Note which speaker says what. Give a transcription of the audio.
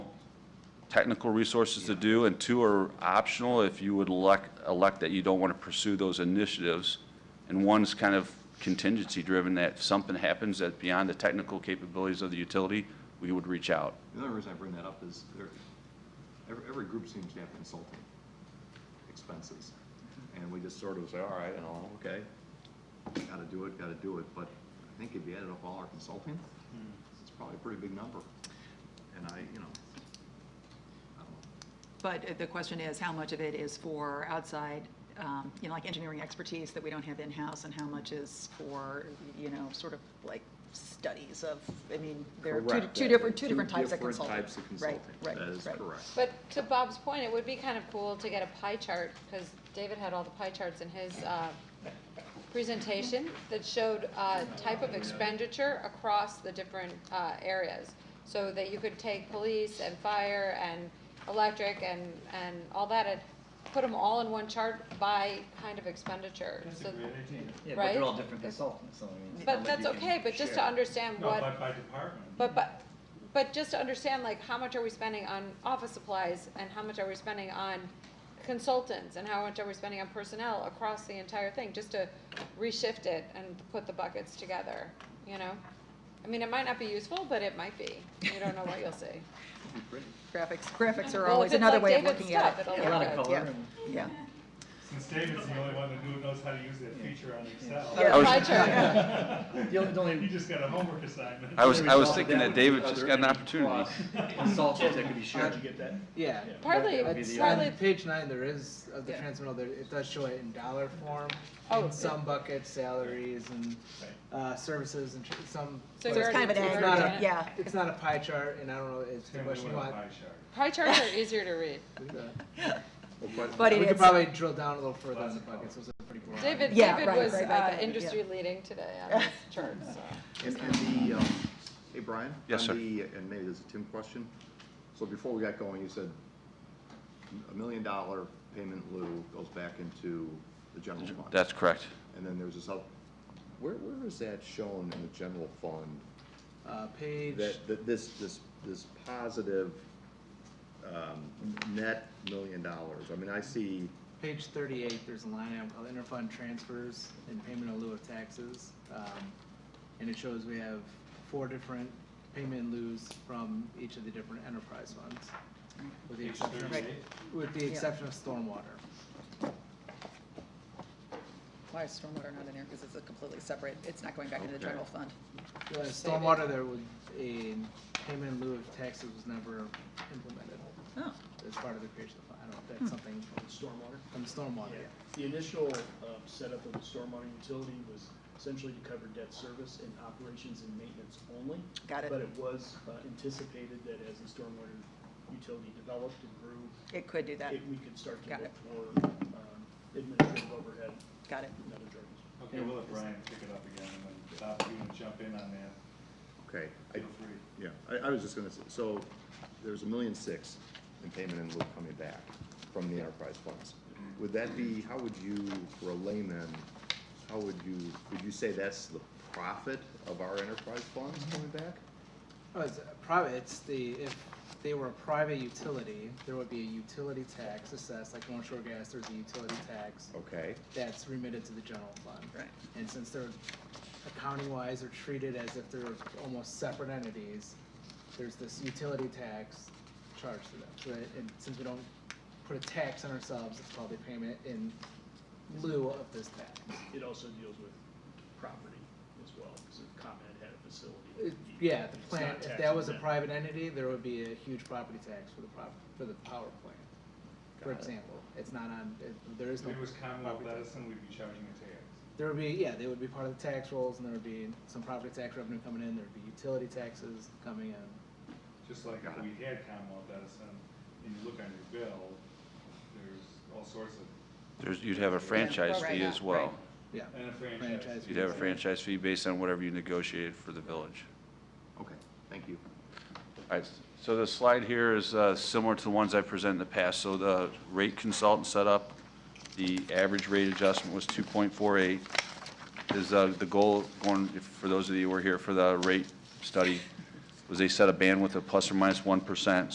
Speaker 1: technical resources to do, and two are optional if you would elect, elect that you don't want to pursue those initiatives. And one's kind of contingency-driven, that if something happens that beyond the technical capabilities of the utility, we would reach out.
Speaker 2: The other reason I bring that up is there, every, every group seems to have consulting expenses. And we just sort of say, all right, and all, okay, gotta do it, gotta do it. But I think if you added up all our consulting, it's probably a pretty big number. And I, you know, I don't
Speaker 3: But uh, the question is, how much of it is for outside, um, you know, like engineering expertise that we don't have in-house, and how much is for, you know, sort of like studies of, I mean, there are
Speaker 2: know.
Speaker 3: two, two different, two different types of consulting.
Speaker 2: Two different types of
Speaker 3: Right,
Speaker 2: consulting.
Speaker 3: right,
Speaker 2: That is
Speaker 3: right.
Speaker 2: correct.
Speaker 4: But to Bob's point, it would be kind of cool to get a pie chart, because David had all the pie charts in his uh, presentation that showed uh, type of expenditure across the different uh, areas, so that you could take police and fire and electric and, and all that, and put them all in one chart by kind of expenditure. So-
Speaker 5: Yeah, but
Speaker 4: Right?
Speaker 5: they're all different consultants, so I mean. it's not
Speaker 4: But
Speaker 5: like
Speaker 4: that's
Speaker 5: you can
Speaker 4: okay, but just to
Speaker 5: share.
Speaker 4: understand
Speaker 6: No,
Speaker 4: what.
Speaker 6: by, by department.
Speaker 4: But, but, but just to understand, like, how much are we spending on office supplies, and how much are we spending on consultants, and how much are we spending on personnel across the entire thing, just to reshift it and put the buckets together, you know? I mean, it might not be useful, but it might be, you don't know what you'll see.
Speaker 2: It'd be pretty.
Speaker 3: Graphics, graphics are
Speaker 4: Well,
Speaker 3: always
Speaker 4: if it's
Speaker 3: another
Speaker 4: like
Speaker 3: way of
Speaker 4: David's
Speaker 3: looking at it.
Speaker 4: stuff,
Speaker 5: A
Speaker 4: it'll
Speaker 5: lot
Speaker 4: look
Speaker 5: of
Speaker 4: good.
Speaker 5: color
Speaker 3: Yeah,
Speaker 5: and.
Speaker 3: yeah.
Speaker 6: Since David's the only one that knew- knows how to use that feature on Excel.
Speaker 3: Yeah.
Speaker 1: I was-
Speaker 4: Pie chart,
Speaker 5: The only, the
Speaker 6: You
Speaker 5: only.
Speaker 6: just got a homework assignment.
Speaker 1: I was-
Speaker 5: the result of
Speaker 1: thinking that
Speaker 5: would be
Speaker 1: David just
Speaker 5: other
Speaker 1: got an
Speaker 5: cross
Speaker 1: opportunity.
Speaker 5: Consultants that could be shared.
Speaker 7: How'd you get that?
Speaker 8: Yeah.
Speaker 6: Yeah.
Speaker 4: Partly,
Speaker 5: That would be
Speaker 4: it's
Speaker 5: the
Speaker 4: partly-
Speaker 8: On page nine, there is, of the
Speaker 3: Yeah.
Speaker 8: transmittal, there, it does show it in dollar form.
Speaker 4: Oh,
Speaker 8: In some buckets, salaries and,
Speaker 6: Right.
Speaker 8: uh, services and tr- some.
Speaker 4: So
Speaker 8: but
Speaker 3: So it's
Speaker 4: already-
Speaker 3: kind of an
Speaker 4: it's
Speaker 8: it's
Speaker 4: already
Speaker 8: not a-
Speaker 3: aggregate, yeah.
Speaker 8: It's not a pie chart and I don't know, it's the
Speaker 6: Tell me what
Speaker 8: question
Speaker 6: a
Speaker 8: you want.
Speaker 6: pie chart.
Speaker 4: pie charts are easier to read.
Speaker 3: But
Speaker 8: We
Speaker 3: it
Speaker 8: could
Speaker 3: is,
Speaker 8: probably drill down a little further on
Speaker 6: Lots
Speaker 8: the
Speaker 6: of color.
Speaker 8: buckets, those are pretty broad.
Speaker 4: David,
Speaker 3: Yeah,
Speaker 4: David
Speaker 3: right,
Speaker 4: was,
Speaker 3: right, right,
Speaker 4: uh,
Speaker 3: right, yeah.
Speaker 4: industry leading today on this chart, so.
Speaker 2: And, and the, um, hey, Brian?
Speaker 1: Yes,
Speaker 2: on
Speaker 1: sir.
Speaker 2: the- And maybe this is a Tim question. So before we got going, you said a million dollar payment in lieu goes back into the general fund.
Speaker 1: That's correct.
Speaker 2: And then there's this other, where, where is that shown in the general fund?
Speaker 8: Uh, page,
Speaker 2: That, that this, this, this positive, um, net million dollars? I mean, I see,
Speaker 8: page thirty-eight, there's a line item called interfund transfers and payment in lieu of taxes. Um, and it shows we have four different payment in lieus from each of the different enterprise funds. With the
Speaker 6: Page
Speaker 8: exception of
Speaker 6: 38.
Speaker 8: With the exception of stormwater.
Speaker 3: why is stormwater not in there? Because it's a completely separate, it's not going back into the
Speaker 2: Okay.
Speaker 3: general fund.
Speaker 8: Uh, Stormwater, there was a payment in lieu of taxes was never implemented
Speaker 3: Oh,
Speaker 8: as part of the creation of, the fund. I don't know if that's something
Speaker 7: Stormwater?
Speaker 8: from stormwater.
Speaker 7: Yeah. The initial um, setup of the stormwater utility was essentially to cover debt service and operations and maintenance only.
Speaker 3: Got it.
Speaker 7: But it was uh, anticipated that as the stormwater utility developed and grew,
Speaker 3: it could do that.
Speaker 7: it- we could start to
Speaker 3: Got
Speaker 7: look
Speaker 3: it.
Speaker 7: for um, administrative overhead
Speaker 3: Got it.
Speaker 7: and other charges.
Speaker 6: Okay, we'll let Brian pick it up again, and then Bob, if you wanna jump in on that,
Speaker 2: okay, I,
Speaker 6: feel free.
Speaker 2: yeah, I, I was just gonna say, so there's a million six in payment in lieu coming back from the enterprise funds. Would that be, how would you, for a layman, how would you, would you say that's the profit of our enterprise funds coming back?
Speaker 8: Oh, it's a private, it's the, if they were a private utility, there would be a utility tax assessed, like North Shore Gas, there's a utility tax
Speaker 2: Okay,
Speaker 8: that's remitted to the general fund.
Speaker 3: Right.
Speaker 8: And since they're accounting-wise, are treated as if they're almost separate entities, there's this utility tax charged to them. So that, and since we don't put a tax on ourselves, it's called a payment in lieu of this tax.
Speaker 7: It also deals with property as well, because the ComEd had a facility.
Speaker 8: It- Uh, Yeah, the plant, if that was a private entity, there would be a huge property tax for the prop, for the power plant, for
Speaker 2: Got it.
Speaker 8: example. It's not on, it- there is
Speaker 6: If
Speaker 8: no.
Speaker 6: it was Commonwealth
Speaker 8: property tax.
Speaker 6: Edison, we'd be charging a tax.
Speaker 8: There would be, yeah, they would be part of the tax rolls, and there would be some property tax revenue coming in, there'd be utility taxes coming in.
Speaker 6: Just like if we had Commonwealth Edison, and you look on your bill, there's all sorts of,
Speaker 1: There's, you'd have a franchise fee as well.
Speaker 8: Yeah,
Speaker 6: and a franchise.
Speaker 8: franchise.
Speaker 1: You'd have a
Speaker 8: fees.
Speaker 1: franchise fee based on whatever you negotiated for the village.
Speaker 2: okay, thank you.
Speaker 1: All right, so the slide here is uh, similar to the ones I presented in the past. So the rate consultant set up, the average rate adjustment was 2.48. Is uh, the goal going, if- for those of you who were here for the rate study, was they set a bandwidth of plus or minus 1%.